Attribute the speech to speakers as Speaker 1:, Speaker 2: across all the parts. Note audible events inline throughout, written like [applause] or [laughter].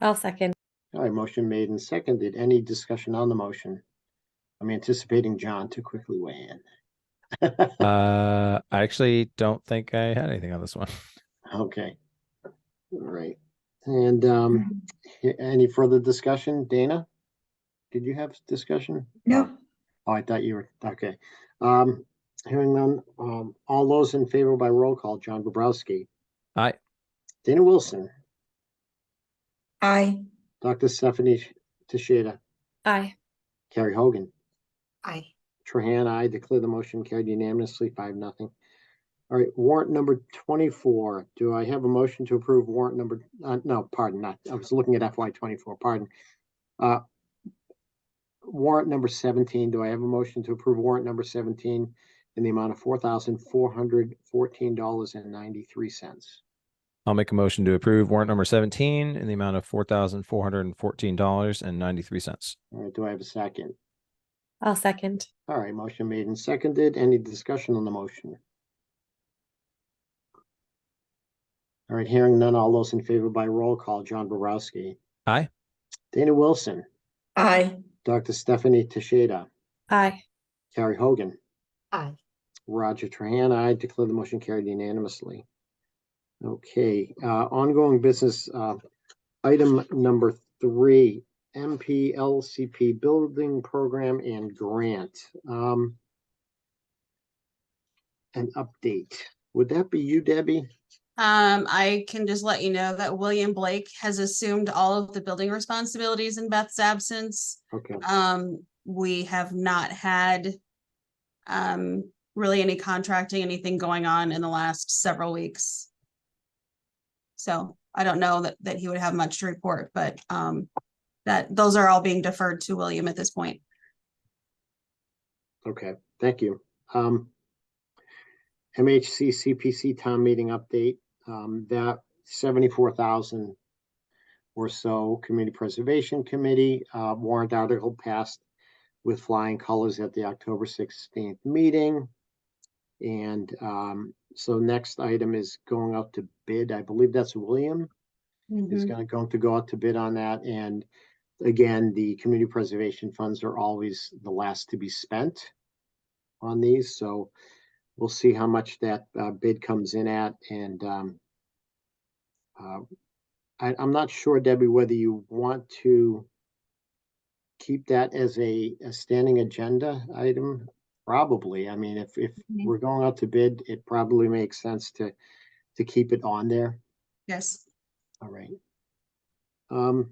Speaker 1: I'll second.
Speaker 2: All right, motion made and seconded. Any discussion on the motion? I'm anticipating John to quickly weigh in. [laughs]
Speaker 3: Uh, I actually don't think I had anything on this one. [laughs]
Speaker 2: Okay. All right. And um, a- any further discussion? Dana? Did you have discussion?
Speaker 4: No,
Speaker 2: Oh, I thought you were, okay. Um, hearing none, um, all those in favor by roll call, John Bobrowski.
Speaker 3: Aye.
Speaker 2: Dana Wilson,
Speaker 4: I.
Speaker 2: Dr. Stephanie Tishada,
Speaker 1: Aye.
Speaker 2: Carrie Hogan.
Speaker 4: I.
Speaker 2: Trahan, I declare the motion carried unanimously, five, nothing. All right, warrant number twenty-four. Do I have a motion to approve warrant number, uh, no, pardon, not, I was looking at FY twenty-four, pardon. Uh, Warrant number seventeen. Do I have a motion to approve warrant number seventeen in the amount of four thousand four hundred fourteen dollars and ninety-three cents?
Speaker 3: I'll make a motion to approve warrant number 17 in the amount of $4,414.93.
Speaker 2: All right, do I have a second?
Speaker 1: I'll second.
Speaker 2: All right, motion made and seconded. Any discussion on the motion? All right, hearing none, all those in favor by roll call, John Borowski.
Speaker 3: Aye.
Speaker 2: Dana Wilson,
Speaker 4: I.
Speaker 2: Dr. Stephanie Teshada,
Speaker 1: Aye.
Speaker 2: Carrie Hogan,
Speaker 4: I.
Speaker 2: Roger Trahan, I declare the motion carried unanimously. Okay, uh, ongoing business, uh, item number three, MPLCP Building Program and Grant. Um, an update. Would that be you, Debbie?
Speaker 5: Um, I can just let you know that William Blake has assumed all of the building responsibilities in Beth's absence.
Speaker 2: Okay,
Speaker 5: Um, we have not had um, really any contracting, anything going on in the last several weeks. So I don't know that, that he would have much to report, but um, that, those are all being deferred to William at this point.
Speaker 2: okay, thank you. Um, MHC CPC town meeting update, um, that seventy-four thousand or so Community Preservation Committee uh, warrant article passed with flying colors at the October sixteenth meeting. And um, so next item is going out to bid. I believe that's William is
Speaker 5: Mhm.
Speaker 2: gonna, going to go out to bid on that. And again, the community preservation funds are always the last to be spent on these, so we'll see how much that uh, bid comes in at and um uh, I, I'm not sure, Debbie, whether you want to keep that as a, a standing agenda item? Probably. I mean, if, if
Speaker 5: Mhm.
Speaker 2: we're going out to bid, it probably makes sense to, to keep it on there.
Speaker 5: Yes.
Speaker 2: All right. Um.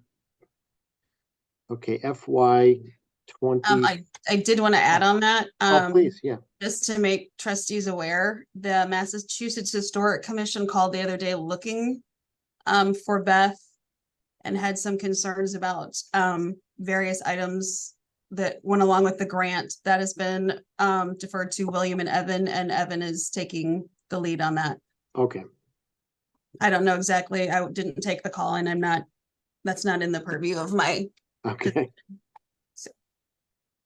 Speaker 2: Okay, FY twenty.
Speaker 5: Um, I, I did want to add on that.
Speaker 2: Mm. Oh,
Speaker 5: Um,
Speaker 2: please, yeah,
Speaker 5: just to make trustees aware, the Massachusetts Historic Commission called the other day looking um, for Beth and had some concerns about um, various items that went along with the grant that has been um, deferred to William and Evan, and Evan is taking the lead on that.
Speaker 2: okay,
Speaker 5: I don't know exactly. I didn't take the call and I'm not, that's not in the purview of my,
Speaker 2: okay.
Speaker 5: So-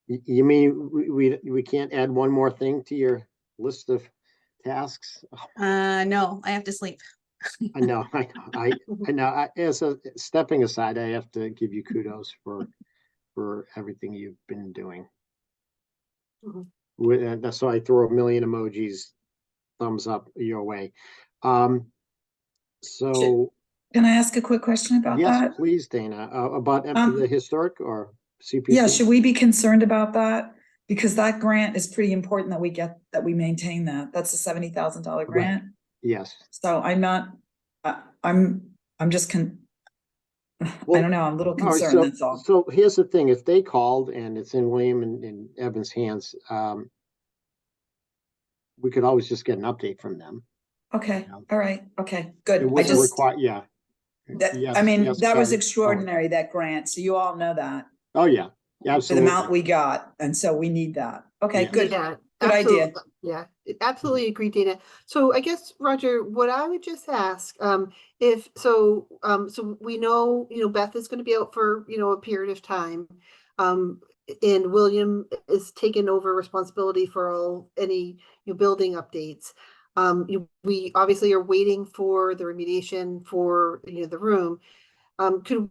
Speaker 2: You, you mean, we, we, we can't add one more thing to your list of tasks?
Speaker 5: uh, no, I have to sleep.
Speaker 2: I know, I, know, I, I know, I, as a, stepping aside, I have to give you kudos for, for everything you've been doing.
Speaker 4: Mhm.
Speaker 2: With, and that's why I throw a million emojis, thumbs up your way. Um, so,
Speaker 4: Can I ask a quick question about
Speaker 2: yes,
Speaker 4: that?
Speaker 2: please, Dana, uh, about em-
Speaker 4: Um,
Speaker 2: the historic or CPC?
Speaker 4: Yeah, should we be concerned about that? Because that grant is pretty important that we get, that we maintain that. That's a seventy thousand dollar
Speaker 2: Right.
Speaker 4: grant.
Speaker 2: Yes,
Speaker 4: So I'm not, I, I'm, I'm just con. I
Speaker 2: Well,
Speaker 4: don't know, I'm a little
Speaker 2: All right,
Speaker 4: concerned, that's
Speaker 2: so,
Speaker 4: all.
Speaker 2: so here's the thing, if they called and it's in William and, and Evan's hands, um, we could always just get an update from them.
Speaker 4: Okay,
Speaker 2: Yeah.
Speaker 4: all right, okay,
Speaker 2: It
Speaker 4: good. I
Speaker 2: wasn't
Speaker 4: just,
Speaker 2: required, yeah.
Speaker 4: that,
Speaker 2: Yes,
Speaker 4: I mean,
Speaker 2: yes,
Speaker 4: that was
Speaker 2: Patty. Oh,
Speaker 4: extraordinary, that grant, so you all know that.
Speaker 2: Oh, yeah, yeah,
Speaker 4: The amount
Speaker 2: absolutely.
Speaker 4: we got, and so we need that. Okay,
Speaker 2: Yeah.
Speaker 4: good.
Speaker 6: Yeah,
Speaker 4: Good idea.
Speaker 6: absolute- Yeah, I absolutely agree, Dana. So I guess, Roger, what I would just ask, um, if, so, um, so we know, you know, Beth is gonna be out for, you know, a period of time. Um, and William is taking over responsibility for all, any, you know, building updates. Um, you- we obviously are waiting for the remediation for, you know, the room. Um, could